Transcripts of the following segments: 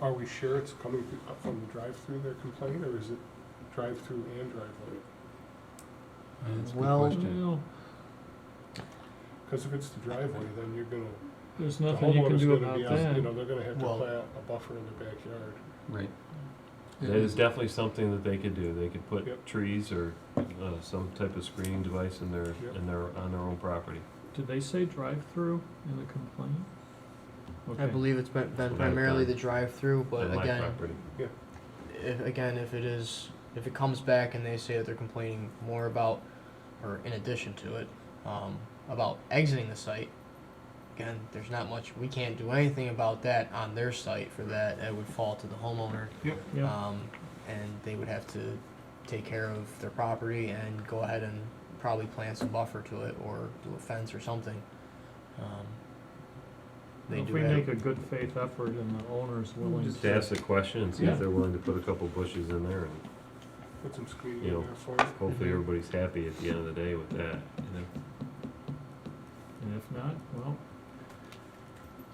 Are we sure it's coming th- up from the drive-through they're complaining, or is it drive-through and driveway? That's a good Well- question. Well, Because if it's the driveway, then you're gonna, there's the nothing you can homeowner's do gonna about be, out- you know, that. they're gonna have to Well- plant a buffer in their backyard. Right, It That is is- definitely something that they could do. They could Yep. put trees or, uh, some type of screening device in their, Yep. in their, on their own property. Did they say drive-through in the complaint? I Okay. believe it's been, been Right, primarily right. the drive-through, but on my again, property. if, again, if it is, if it comes back and they say that they're complaining more about, or in addition to it, um, about exiting the site, again, there's not much, we can't do anything about that on their site for that. That would fall to the homeowner. Yeah, Um, and they would have to take care of their property and go ahead and probably plant some buffer to it or do a fence or something. Um, they if do we have- make a good faith effort and the owner's willing Just to, ask the question and see Yeah. if they're willing to put a couple bushes in there and Put some screening You know, in there for it. hopefully Mhm. everybody's happy at the end of the day with that. you know? and if not, well,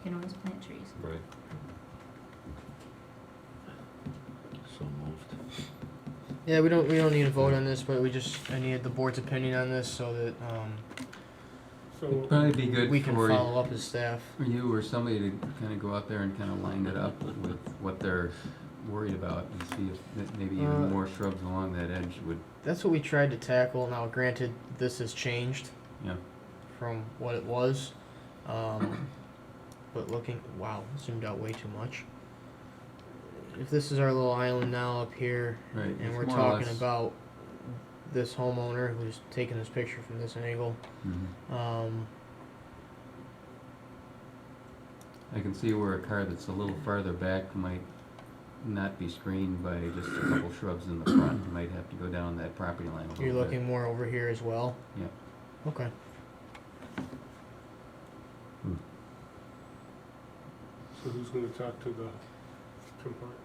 You can always plant trees. Right. so moved. Yeah, we don't we don't need a vote on this, but we just I needed the board's opinion on this so that um, It'd So, probably be good we can for y- follow up as staff. for you or somebody to kind of go out there and kind of line it up with what they're worried about and see if that maybe Uh, even more shrubs along that edge would, That's what we tried to tackle. Now, granted, this has changed yeah. from what it was, um, but looking wow, zoomed out way too much. If this is our little island now up here, Right, and it's we're more or talking less- about this homeowner who's taking this picture from this angle, Mhm. um, I can see where a car that's a little farther back might not be screened by just a couple shrubs in the front, You might have to go down that property line a little bit. you're looking more over here as well. Yep. Okay. so who's gonna talk to the complainants?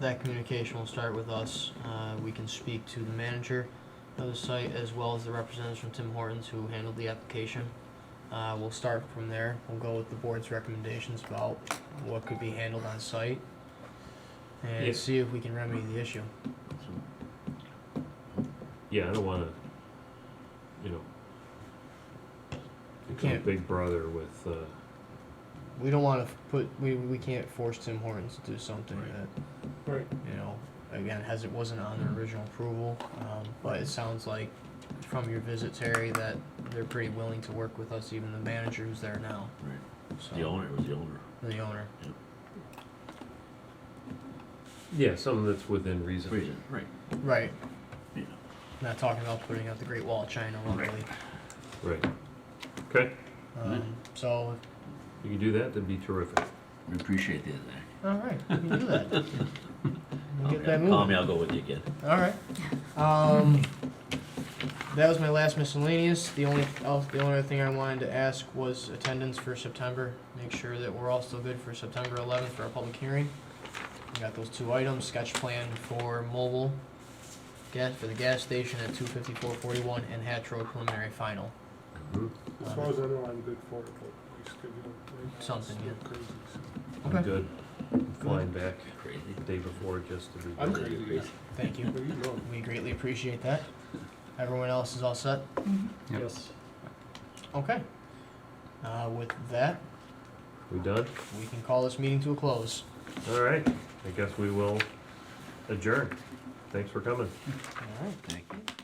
That communication will start with us. Uh, we can speak to the manager of the site as well as the representatives from Tim Hortons who handled the application. Uh, we'll start from there. We'll go with the board's recommendations about what could be handled on site and Yeah. see if we can remedy the issue. Yeah, I don't wanna, you know, become can't- big brother with, uh, We don't want to put we, we can't force Tim Hortons to do something that Right. Mm-hmm. you know again as it wasn't on their original approval. Um, but it sounds like from your visit, Terry, that they're pretty willing to work with us, even the manager who's there now. Right. So, The owner was the owner. The owner. yeah, something that's within reason. Reason, right. Right. Yeah. Not talking about putting up the Great Wall of China, luckily. Right. Okay, Um, so, you can do that, that'd be terrific. We appreciate the other all right, we can do that. We'll get that day. moving. Call me, I'll go with you again. All right. Um, that was my last miscellaneous. The only else, the only other thing I wanted to ask was attendance for September. Make sure that we're all still good for September 11th for our public hearing. We got those two items: sketch plan for mobile gas for the gas station at 25441 and Hatch Road preliminary final. Mm-hmm. Mhm. Uh, As far as I know, I'm good for it, but we schedule it. right now. Something, It's yeah. still crazy, so. Okay. I'm good. I'm flying back Crazy. the day before just to be. I'm crazy, yeah. Thank you. But you know, We greatly appreciate that. Everyone else is all set? Yep. yes. Okay. Uh, with that, We done? we can call this meeting to a close. All right, I guess we will adjourn. Thanks for coming. All right. Thank you.